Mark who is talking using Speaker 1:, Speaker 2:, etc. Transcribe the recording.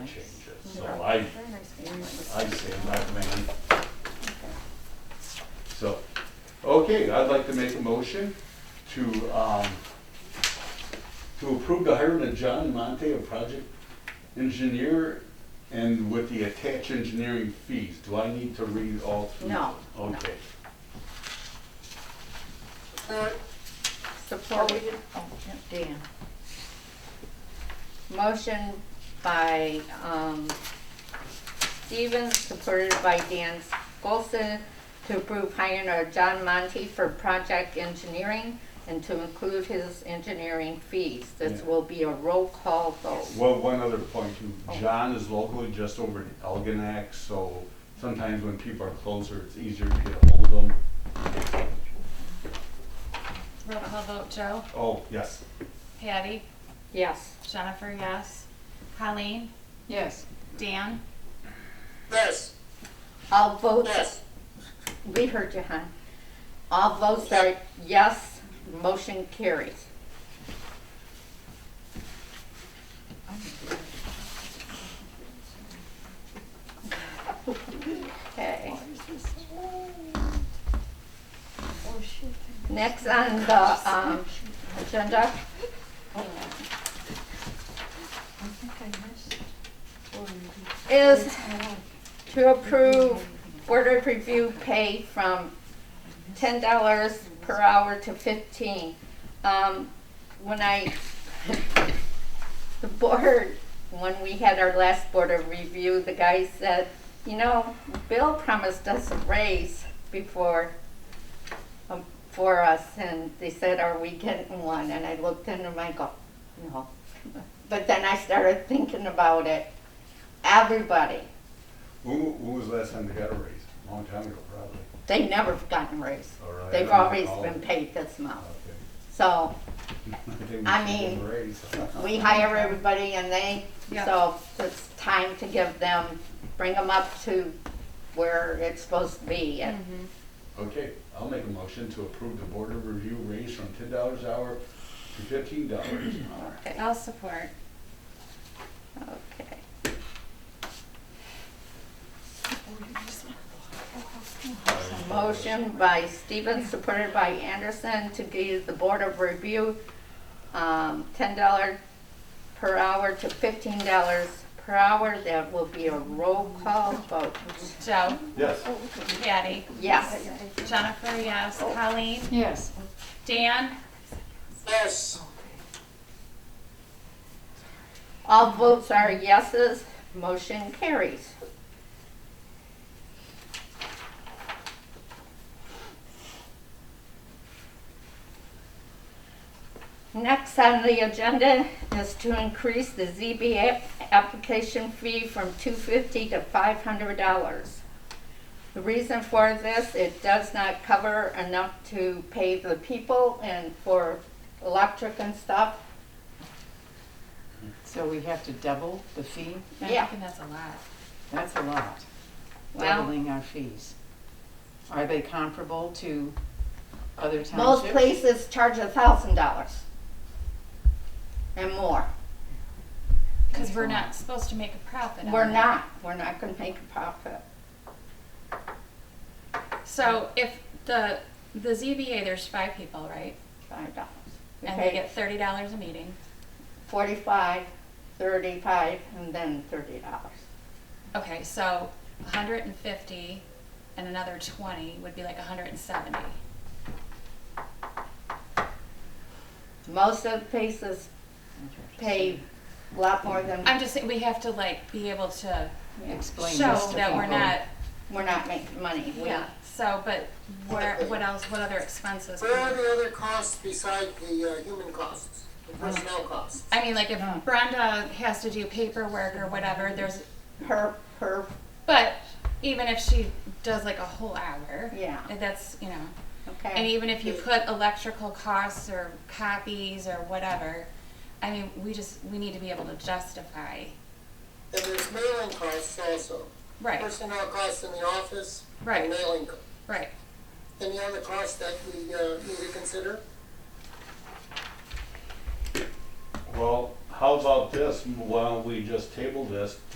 Speaker 1: changes. So I,
Speaker 2: Very nice
Speaker 1: I
Speaker 2: family.
Speaker 1: say recommend,
Speaker 2: Okay.
Speaker 1: so, okay, I'd like to make a motion to, um, to approve the hiring of John Monte, a project engineer, and with the attached engineering fees. Do I need to read all three?
Speaker 2: No, no.
Speaker 1: Okay.
Speaker 2: Support. Oh, yeah, Dan. Motion by, um, Stevens, supported by Dan Golson, to approve hiring of John Monte for project engineering and to include his engineering fees. This
Speaker 1: Yeah.
Speaker 2: will be a roll call vote.
Speaker 1: Well, one other point
Speaker 2: Oh.
Speaker 1: too, John is locally just over in Elginak, so sometimes when people are closer, it's easier to get ahold of them.
Speaker 3: Roll call vote, Joe?
Speaker 1: Oh, yes,
Speaker 3: Patty?
Speaker 2: Yes.
Speaker 3: Jennifer, yes. Colleen?
Speaker 2: Yes.
Speaker 3: Dan?
Speaker 4: yes,
Speaker 2: All votes,
Speaker 4: yes,
Speaker 2: we heard you, hon. All votes are yes, motion carries. Okay. Next on the, um, agenda, is to approve Board of Review pay from ten dollars per hour to fifteen. Um, when I, the board, when we had our last Board of Review, the guy said, you know, Bill promised us a raise before, um, for us, and they said, are we getting one? And I looked into him, I go, no. But then I started thinking about it, everybody,
Speaker 1: who, who was the last time they got a raise? Long time ago, probably.
Speaker 2: they never have gotten a raise.
Speaker 1: All right.
Speaker 2: They've always been paid this amount. So
Speaker 1: Okay.
Speaker 2: I
Speaker 1: think we should give
Speaker 2: mean,
Speaker 1: them a raise.
Speaker 2: we hire everybody and they, so it's time to give them, bring them up to where it's supposed to be. And
Speaker 1: Okay, I'll make a motion to approve the board of review raise from ten dollars an hour to fifteen dollars an hour.
Speaker 3: I'll support.
Speaker 2: Okay. Motion by Stevens, supported by Anderson, to give the Board of Review um, $10 per hour to $15 per hour. That will be a roll call vote.
Speaker 3: Joe?
Speaker 1: Yes,
Speaker 3: Patty?
Speaker 2: Yes.
Speaker 3: Jennifer, yes. Colleen?
Speaker 5: Yes.
Speaker 3: Dan?
Speaker 4: yes,
Speaker 2: All votes are yeses, motion carries. Next on the agenda is to increase the ZBA application fee from two fifty to five hundred dollars. The reason for this, it does not cover enough to pay the people and for electric and stuff.
Speaker 5: So we have to double the fee?
Speaker 2: Yeah.
Speaker 3: I think that's a lot.
Speaker 5: That's a lot,
Speaker 2: Well,
Speaker 5: doubling our fees. Are they comparable to other townships?
Speaker 2: Most places charge a thousand dollars and more.
Speaker 3: Because we're not supposed to make a profit on
Speaker 2: We're
Speaker 3: it.
Speaker 2: not, we're not gonna make a profit.
Speaker 3: So if the, the ZBA, there's five people, right?
Speaker 2: Five dollars. We
Speaker 3: And they
Speaker 2: pay
Speaker 3: get thirty dollars a meeting.
Speaker 2: forty-five, thirty-five, and then thirty dollars.
Speaker 3: Okay, so hundred and fifty and another twenty would be like hundred and seventy.
Speaker 2: Most of the places pay a lot more than,
Speaker 3: I'm just saying, we have to like be able to
Speaker 5: Explain this
Speaker 3: show
Speaker 5: to
Speaker 3: that we're
Speaker 5: people.
Speaker 3: not
Speaker 2: we're not making money. We-
Speaker 3: Yeah, so, but where, what else, what other expenses?
Speaker 4: where are the other costs beside the uh, human costs, the
Speaker 3: Uh-huh.
Speaker 4: personnel costs?
Speaker 3: I mean, like if
Speaker 5: Yeah.
Speaker 3: Brenda has to do paperwork or whatever, there's,
Speaker 2: Per, per,
Speaker 3: but even if she does like a whole hour.
Speaker 2: Yeah.
Speaker 3: That's, you know, and
Speaker 2: okay,
Speaker 3: even if you put electrical costs or copies or whatever, I mean, we just, we need to be able to justify.
Speaker 4: And there's mailing costs also,
Speaker 3: Right,
Speaker 4: personnel costs in the office, and
Speaker 3: right,
Speaker 4: mailing. co-
Speaker 3: right.
Speaker 4: Any other costs that we uh, need to consider?
Speaker 1: well, how about this, why don't we just table this